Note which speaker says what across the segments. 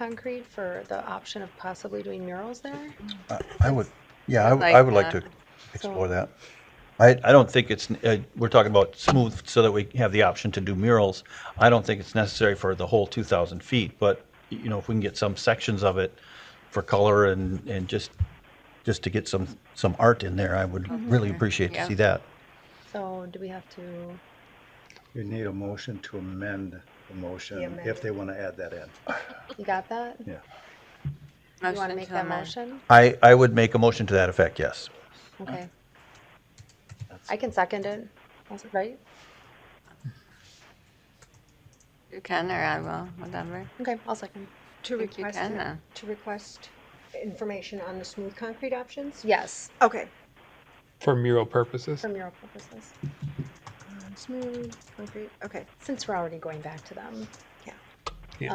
Speaker 1: concrete for the option of possibly doing murals there?
Speaker 2: I- I would, yeah, I w-
Speaker 3: like
Speaker 2: I would like to
Speaker 3: that.
Speaker 2: explore that.
Speaker 4: I, I don't think it's, uh, we're talking about smooth so that we have the option to do murals. I don't think it's necessary for the whole 2,000 feet, but, you know, if we can get some sections of it for color and, and just, just to get some, some art in there, I would really appreciate to
Speaker 3: Mm-hmm. Yeah.
Speaker 4: see that.
Speaker 1: So do we have to,
Speaker 5: You need a motion to amend the motion if they want to add that in.
Speaker 1: you got that?
Speaker 5: Yeah.
Speaker 1: You want to make that motion?
Speaker 4: I, I would make a motion to that effect, yes.
Speaker 1: Okay. I can second it, That's right?
Speaker 3: You can, or I will, whatever.
Speaker 1: Okay, I'll second.
Speaker 6: To
Speaker 3: I think you
Speaker 6: request,
Speaker 3: can
Speaker 6: it-
Speaker 3: now.
Speaker 6: to request information on the smooth concrete options?
Speaker 1: Yes,
Speaker 6: Okay.
Speaker 7: For mural purposes?
Speaker 1: for mural purposes, Uh,
Speaker 6: Smooth concrete, okay.
Speaker 1: since we're already going back to them.
Speaker 6: Yeah.
Speaker 7: Yeah.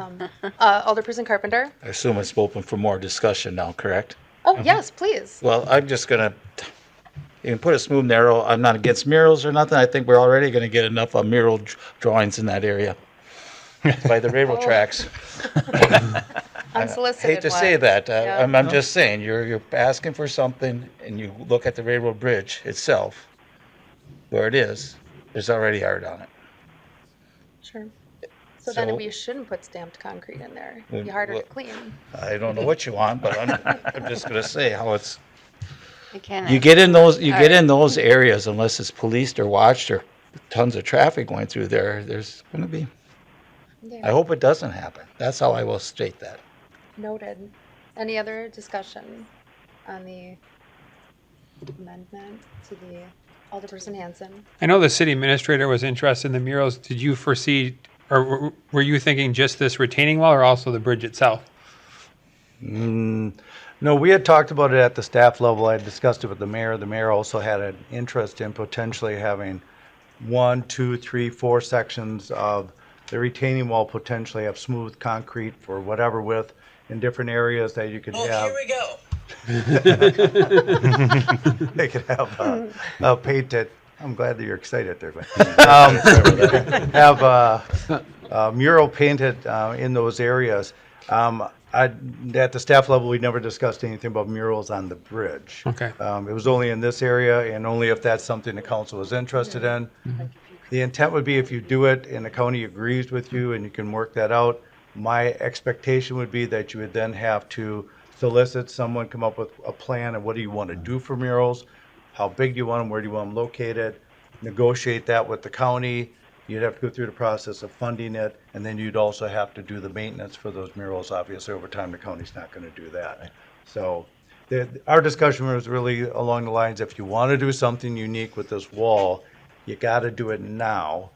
Speaker 1: Um, uh, Alderperson Carpenter?
Speaker 8: I assume it's open for more discussion now, correct?
Speaker 1: Oh, yes, please.
Speaker 8: Well, I'm just gonna, you can put a smooth narrow, I'm not against murals or nothing, I think we're already gonna get enough of mural dr- drawings in that area by the railroad
Speaker 1: Oh,
Speaker 8: tracks.
Speaker 1: Unsolicited
Speaker 8: Hate to say
Speaker 1: one.
Speaker 8: that, uh,
Speaker 1: Yeah.
Speaker 8: I'm, I'm just saying, you're, you're asking for something and you look at the railroad bridge itself, where it is, there's already art on it.
Speaker 1: Sure. So then
Speaker 8: So-
Speaker 1: we shouldn't put stamped concrete in there. It'd be
Speaker 8: Then
Speaker 1: harder to
Speaker 8: what-
Speaker 1: clean.
Speaker 8: I don't know what you want, but I'm, I'm just gonna say how it's,
Speaker 3: You can.
Speaker 8: You get in those, you
Speaker 3: All
Speaker 8: get
Speaker 3: right.
Speaker 8: in those areas unless it's policed or watched or tons of traffic going through there, there's gonna be, I
Speaker 1: Yeah,
Speaker 8: hope it doesn't happen. That's how I will state that.
Speaker 1: noted. Any other discussion on the amendment to the Alderperson Hanson?
Speaker 7: I know the city administrator was interested in the murals. Did you foresee, or were- were you thinking just this retaining wall or also the bridge itself?
Speaker 5: No, we had talked about it at the staff level. I had discussed it with the mayor. The mayor also had an interest in potentially having one, two, three, four sections of the retaining wall potentially have smooth concrete for whatever width in different areas that you could have. Oh, here we go. They could have uh, uh, painted, I'm glad that you're excited there, Glenn. Um, Have uh, uh, mural painted uh, in those areas. Um, I, at the staff level, we never discussed anything about murals on the bridge.
Speaker 7: Okay.
Speaker 5: Um, it was only in this area and only if that's something the council is interested in. The intent would be if you do it and the county agrees with you and you can work that out, my expectation would be that you would then have to solicit someone, come up with a plan of what do you want to do for murals? How big do you want them? Where do you want them located? Negotiate that with the county. You'd have to go through the process of funding it, and then you'd also have to do the maintenance for those murals. Obviously, over time, the county's not going to do that. So the, our discussion was really along the lines, if you want to do something unique with this wall, you got to do it now,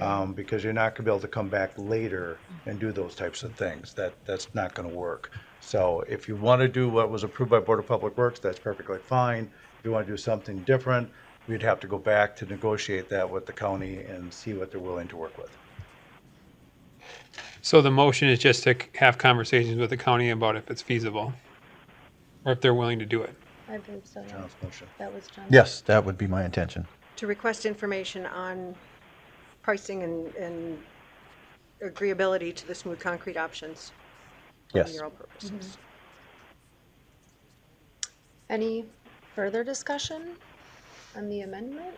Speaker 5: um, because you're not going to be able to come back later and do those types of things. That, that's not going to work. So if you want to do what was approved by Board of Public Works, that's perfectly fine. If you want to do something different, we'd have to go back to negotiate that with the county and see what they're willing to work with.
Speaker 7: So the motion is just to c- have conversations with the county about if it's feasible or if they're willing to do it.
Speaker 1: I believe so. yeah.
Speaker 5: John's motion.
Speaker 1: That was John.
Speaker 4: Yes, that would be my intention.
Speaker 6: To request information on pricing and, and agreeability to the smooth concrete options for
Speaker 4: Yes.
Speaker 6: mural purposes.
Speaker 1: Any further discussion on the amendment?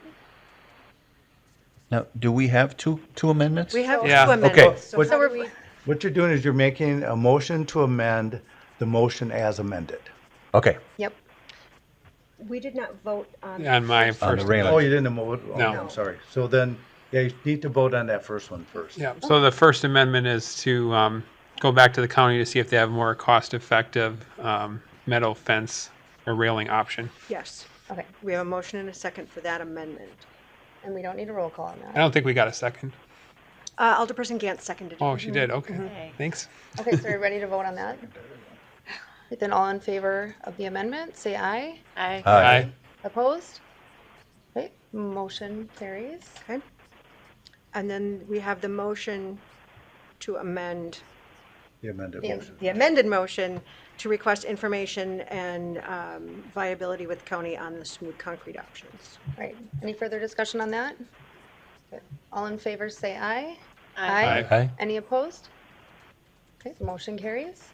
Speaker 4: Now, do we have two, two amendments?
Speaker 6: We have two
Speaker 7: Yeah, okay.
Speaker 6: amendments. so
Speaker 5: What-
Speaker 6: how do we-
Speaker 5: What you're doing is you're making a motion to amend the motion as amended.
Speaker 4: Okay,
Speaker 1: Yep.
Speaker 6: We did not vote on.
Speaker 7: On my
Speaker 4: on
Speaker 7: first.
Speaker 4: the railing.
Speaker 5: Oh, you didn't vote? Oh,
Speaker 7: No.
Speaker 5: I'm sorry. So then, yeah, you need to vote on that first one first.
Speaker 7: Yeah, so the First Amendment is to um, go back to the county to see if they have more cost-effective um, metal fence or railing option.
Speaker 6: Yes,
Speaker 1: Okay,
Speaker 6: we have a motion and a second for that amendment.
Speaker 1: and we don't need a roll call on
Speaker 7: I
Speaker 1: that.
Speaker 7: don't think we got a second.
Speaker 6: Uh, Alderperson Gantz seconded. it.
Speaker 7: Oh, she did, okay, thanks.
Speaker 1: Okay, so are you ready to vote on that? Then all in favor of the amendment, say aye.
Speaker 3: I,
Speaker 4: Aye.
Speaker 1: Opposed? Okay, motion carries.
Speaker 6: Okay. And then we have the motion to amend,
Speaker 5: The amended
Speaker 1: Yeah.
Speaker 5: motion.
Speaker 6: the amended motion to request information and um, viability with county on the smooth concrete options.
Speaker 1: All right, any further discussion on that? All in favor, say aye.
Speaker 3: I,
Speaker 7: Aye.
Speaker 1: Any opposed? Okay, the motion carries.